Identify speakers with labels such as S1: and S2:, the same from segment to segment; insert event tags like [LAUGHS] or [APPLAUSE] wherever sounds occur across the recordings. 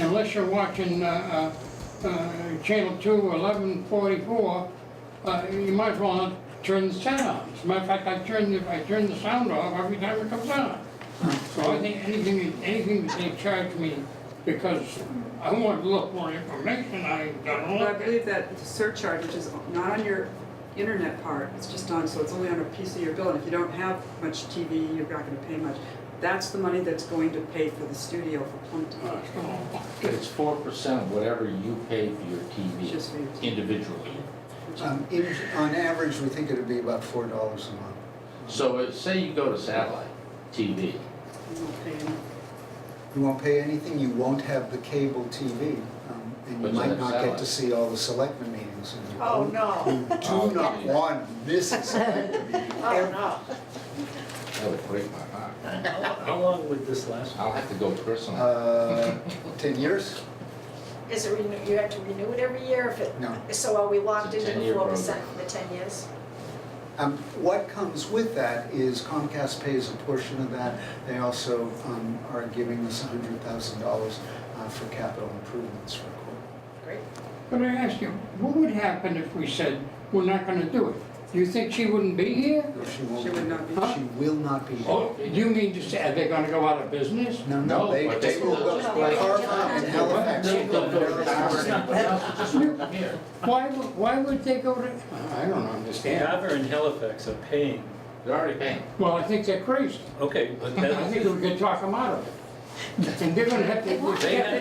S1: unless you're watching uh, uh, uh, Channel 2, 1144, uh, you might as well not turn the sound on. As a matter of fact, I turn, the- I turn the sound off every time it comes on. So I think anything, anything that they charge me, because I want to look for information, I gotta
S2: Well, I
S1: look.
S2: believe that the surcharge, which is not on your internet part, it's just on, so it's only on a piece of your bill, and if you don't have much TV, you're not gonna pay much. That's the money that's going to pay for the studio for Plimpton,
S1: Uh, so-
S3: It's four percent of whatever you pay for your
S2: It's just
S3: TV
S2: for you.
S3: individually.
S2: which is-
S4: Um, in- On average, we think it'd be about four dollars a month.
S3: So uh, say you go to satellite TV,
S2: you won't pay any.
S4: You won't pay anything, you won't have the cable TV, um, and
S3: But
S4: you
S3: you
S4: might
S3: have
S4: not get to
S3: satellite.
S4: see all the selectmen meetings. and you
S5: Oh,
S4: don't-
S5: no.
S3: Oh,
S4: You do not want this
S2: [LAUGHS]
S4: selectmen meeting.
S5: Oh, no.
S3: that would break my heart.
S6: How long would this last?
S3: I'll have to go personally.
S4: Uh, Ten years?
S5: Is it renew, you have to renew it every year if it,
S4: No.
S5: so are we locked
S3: It's a
S5: into the
S3: 10-year
S5: four
S3: program.
S5: percent for the ten years?
S4: Um, What comes with that is Comcast pays a portion of that. They also um, are giving us hundred thousand dollars uh, for capital improvements for court.
S5: Great.
S1: But I ask you, what would happen if we said, we're not gonna do it? Do you think she wouldn't be here?
S4: She won't.
S2: She would not be-
S4: She will not be. here.
S1: Oh, you mean to say, are they gonna go out of business?
S4: No,
S3: No,
S4: no, they,
S3: but
S4: they
S3: they
S4: will
S3: will
S4: go
S3: just
S5: like-
S4: carve out in Halifax.
S3: No,
S4: they
S3: no,
S4: will
S3: no, no,
S4: go
S3: it's
S4: to-
S3: not that, it's just here.
S1: Why, would- why would they go to, I don't understand.
S6: Dover and Halifax are paying,
S3: They're already paying.
S1: Well, I think they're crazy.
S6: okay, but
S1: [LAUGHS] I think
S6: that,
S1: we can talk them out of it. And they're gonna have to,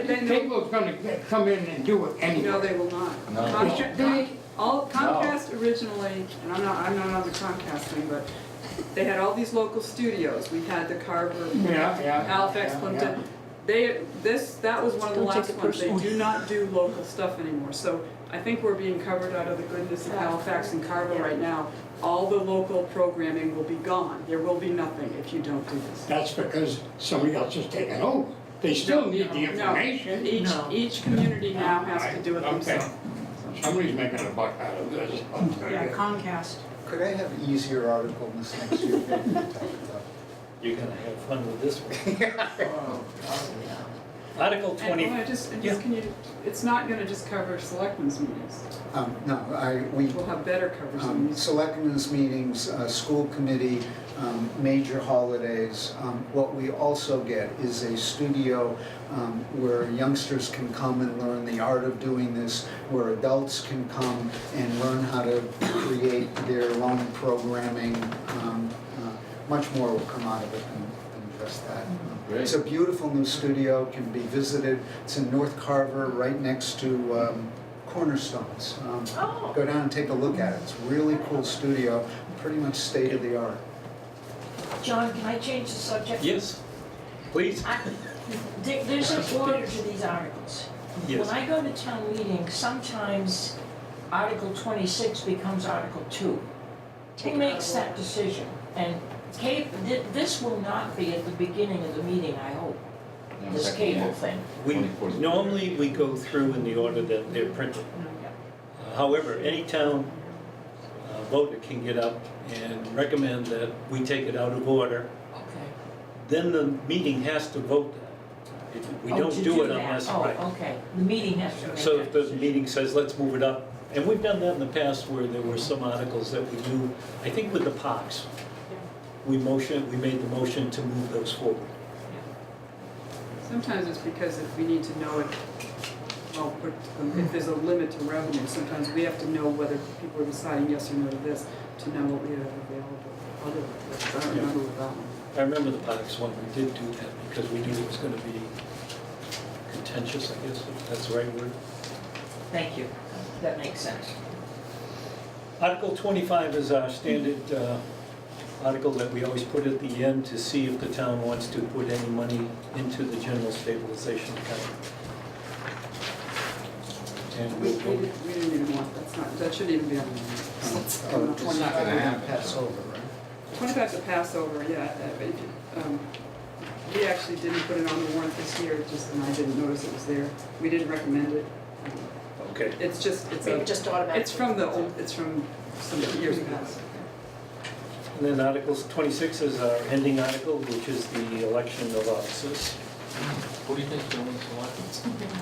S1: the cable's gonna come in and do it
S2: No,
S1: anyway.
S2: they will not.
S3: No.
S2: Comcast-
S1: They-
S2: All Comcast originally, and I'm not, I'm not on the Comcast thing, but they had all these local studios. We had the Carver,
S1: Yeah, yeah.
S2: Halifax,
S1: yeah,
S2: Plimpton. They, this, that was one of the
S5: Don't take
S2: last
S5: it
S2: ones. They
S5: personally.
S2: do not do local stuff anymore. So I think we're being covered out of the goodness of Halifax and Carver right now. All the local programming will be gone. There will be nothing if you don't do this.
S1: That's because somebody else has taken over. They still need the
S2: No, no.
S1: information.
S2: Each, each community now has to do it
S1: Okay.
S2: themselves.
S1: Somebody's making a buck out of this.
S7: Yeah, Comcast.
S4: Could I have an easier article in this next year? [LAUGHS] that we can talk about?
S6: you're gonna have fun with this one. Article
S2: And,
S6: twenty,
S2: well, I just, I
S6: Yeah.
S2: just, can you, it's not gonna just cover selectmen's meetings,
S4: Um, no, I, we,
S2: we'll have better coverage than
S4: um,
S2: these.
S4: selectmen's meetings, uh, school committee, um, major holidays. Um, What we also get is a studio um, where youngsters can come and learn the art of doing this, where adults can come and learn how to create their own programming. Um, uh, Much more will come out of it than than just that.
S3: Great.
S4: It's a beautiful new studio, can be visited. It's in North Carver, right next to um, Cornerstones. Um,
S5: Oh.
S4: Go down and take a look at it. It's a really cool studio, pretty much state of the art.
S7: John, can I change the subject?
S6: yes, please,
S7: I- there- There's an order to these articles. When
S6: yes.
S7: I go to town meeting, sometimes Article 26 becomes Article 2. Who
S5: Take it out
S7: makes
S5: of
S7: that
S5: order.
S7: decision? And Kate, thi- this will not be at the beginning of the meeting, I hope, this cable thing.
S6: We,
S3: 24th.
S6: normally we go through in the order that they're printed. However, any town uh, voter can get up and recommend that we take it out of order.
S7: Okay.
S6: Then the meeting has to vote that. If We
S7: Oh,
S6: don't
S7: to
S6: do it
S7: that.
S6: unless, right.
S7: Oh, okay. The meeting has to make
S6: So
S7: that
S6: if the
S7: decision.
S6: meeting says, let's move it up, and we've done that in the past where there were some articles that we knew, I think with the POCs, we motioned, we made the motion to move those forward.
S2: Sometimes it's because if we need to know it, well, put- um, if there's a limit to revenue, sometimes we have to know whether people are deciding yes or no to this, to know what we have available. Other, I don't remember with that one.
S6: I remember the POCs one, we did do that because we knew it was gonna be contentious, I guess, if that's the right word.
S7: Thank you. That makes sense.
S6: Article 25 is our standard uh, article that we always put at the end to see if the town wants to put any money into the general stabilization account. And
S2: We,
S6: we'll
S2: we didn't,
S6: vote
S2: we didn't even want, that's not, that shouldn't even be on the list.
S4: Um,
S3: not gonna happen.
S4: Passover, right?
S2: Twenty-five to Passover, yeah, uh, it, um, we actually didn't put it on the warrant this year, just, and I didn't notice it was there. We didn't recommend it. Um,
S6: Okay.
S2: It's just, it's
S5: Maybe
S2: a,
S5: just automatically.
S2: It's from the old, it's from some years past.
S6: And then Articles 26 is our ending article, which is the election of officers.
S3: Who do you think's going to select?